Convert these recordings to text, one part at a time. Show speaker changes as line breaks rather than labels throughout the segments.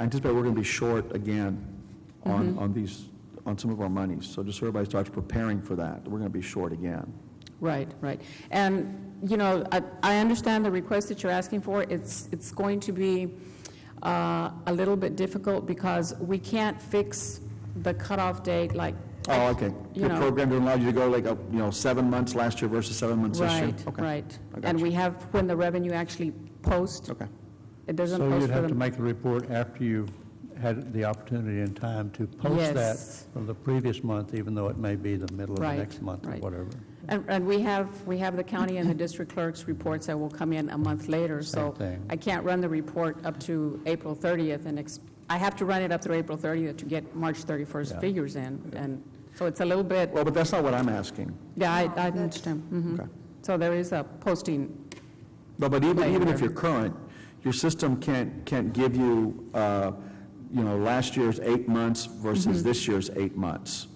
I anticipate we're going to be short again
Mm-hmm.
on, on these, on some of our monies. So just so everybody starts preparing for that, we're going to be short again.
Right, right. And, you know, I, I understand the request that you're asking for. It's, it's going to be uh, a little bit difficult because we can't fix the cutoff date like.
Oh, okay.
You
Your
know.
program didn't allow you to go like, uh, you know, seven months last year versus seven months this year?
Right,
Okay.
right.
I got
And
you.
we have, when the revenue actually posts,
Okay.
it doesn't
So
post
you'd
for
have to
them.
make the report after you've had the opportunity and time to post that
Yes.
from the previous month, even though it may be the middle of the
Right,
next month or
right.
whatever.
And, and we have, we have the county and the district clerk's reports that will come in a month later.
Same
So
thing.
I can't run the report up to April 30th and, ex- I have to run it up through April 30th to get March 31st
Yeah.
figures in. And so it's a little bit.
Well, but that's not what I'm asking.
Yeah, I, I understand. Mhm.
Okay.
So there is a posting,
No, but even, even if
Later.
you're current, your system can't, can't give you, uh, you know, last year's eight months versus this year's eight months.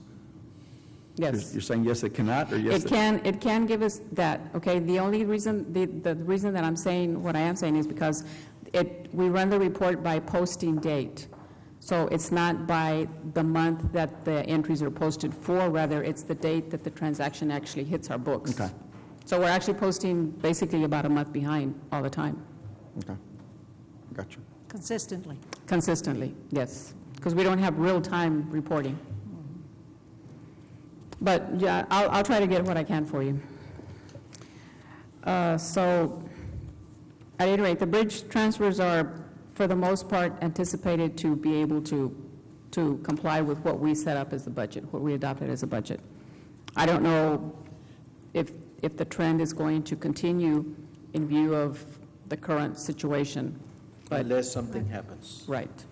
You're
Mm-hmm. yes.
you're saying yes, it cannot, or yes?
It can, it can give us that, okay? The only reason, the, the reason that I'm saying what I am saying is because it, we run the report by posting date. So it's not by the month that the entries are posted for, rather it's the date that the transaction actually hits our books.
Okay.
So we're actually posting basically about a month behind all the time,
Okay. Gotcha.
Consistently.
consistently, yes. Because we don't have real-time reporting. But, yeah, I'll, I'll try to get what I can for you. Uh, So, at any rate, the bridge transfers are, for the most part, anticipated to be able to, to comply with what we set up as the budget, what we adopted as a budget. I don't know if, if the trend is going to continue in view of the current situation, but,
Unless something happens.
right.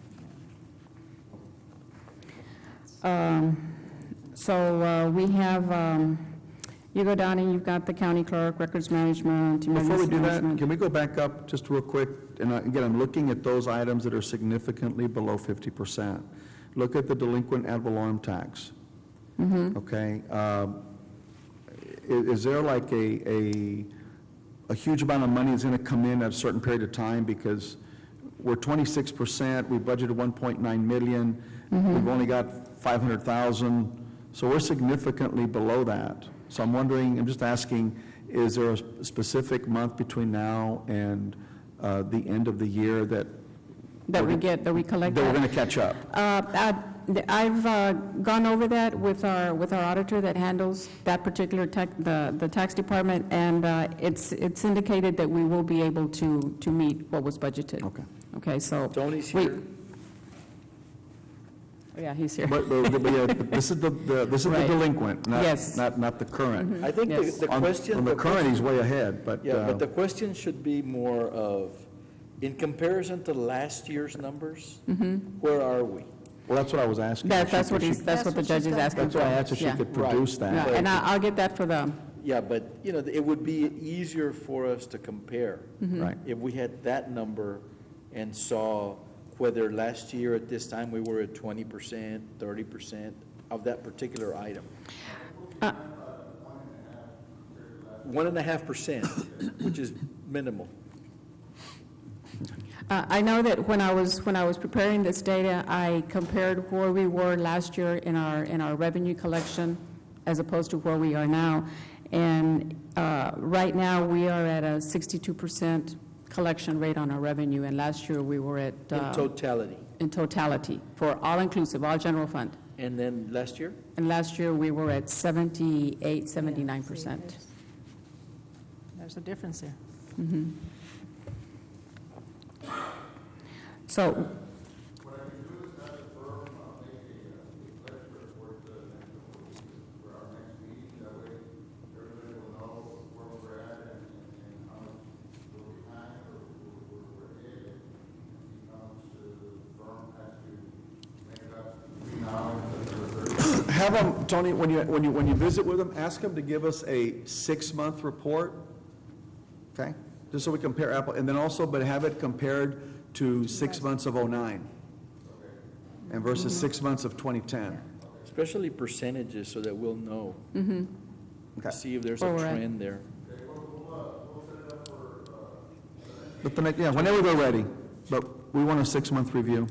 Um, So uh, we have, um, you go down and you've got the county clerk, records management,
Before we
emergency
do that,
management.
can we go back up just real quick? And I- again, I'm looking at those items that are significantly below 50%. Look at the delinquent ad valorem tax. Okay? um, i- Is there like a, a, a huge amount of money that's going to come in at a certain period of time? Because we're 26%, we budgeted 1.9 million,
Mm-hmm.
we've only got 500,000, so we're significantly below that. So I'm wondering, I'm just asking, is there a s- specific month between now and uh, the end of the year that,
That we get, that we collect.
that we're
that.
going to catch up?
Uh, I- I've uh, gone over that with our, with our auditor that handles that particular tax, the, the tax department, and uh, it's, it's indicated that we will be able to, to meet what was budgeted.
Okay.
Okay, so.
Tony's
we- Oh,
here.
Yeah, he's here.
But, but- but, yeah, but this is the, the- this is the
Right.
delinquent,
Yes. Mm-hmm.
not, not, not the current.
I think the
Yes.
the
On-
question.
On the current, he's way ahead, but.
Yeah,
uh,
but the question should be more of, in comparison to last year's numbers, where are we?
Well, that's what I was asking.
That,
She-
that's what
she-
he's, that's what the judge is asking
That's
for.
what I asked, if she
Yeah.
could produce
Yeah,
that.
And I- I'll get that for the,
Yeah, but, you know, it would be easier for us to compare.
Mm-hmm.
Right.
If we had that number and saw whether last year at this time, we were at twenty percent, thirty percent of that particular item.
Uh,
One and a half percent, which is minimal.
Uh, I know that when I was, when I was preparing this data, I compared where we were last year in our, in our revenue collection as opposed to where we are now. And uh, right now, we are at a 62% collection rate on our revenue, and last year, we were at,
In
uh,
totality.
in totality, for all-inclusive, all general fund.
And then last year?
And last year, we were at 78, 79%.
There's a difference there.
So,
Have them, Tony, when you, when you, when you visit with them, ask them to give us a six-month report, okay? Just so we compare apple, and then also, but have it compared to six months of '09 and versus six months of 2010.
Especially percentages, so that we'll know,
Okay.
see if there's
Where
a
we're at.
trend there.
But the, next- yeah, whenever they're ready, but we want a six-month review.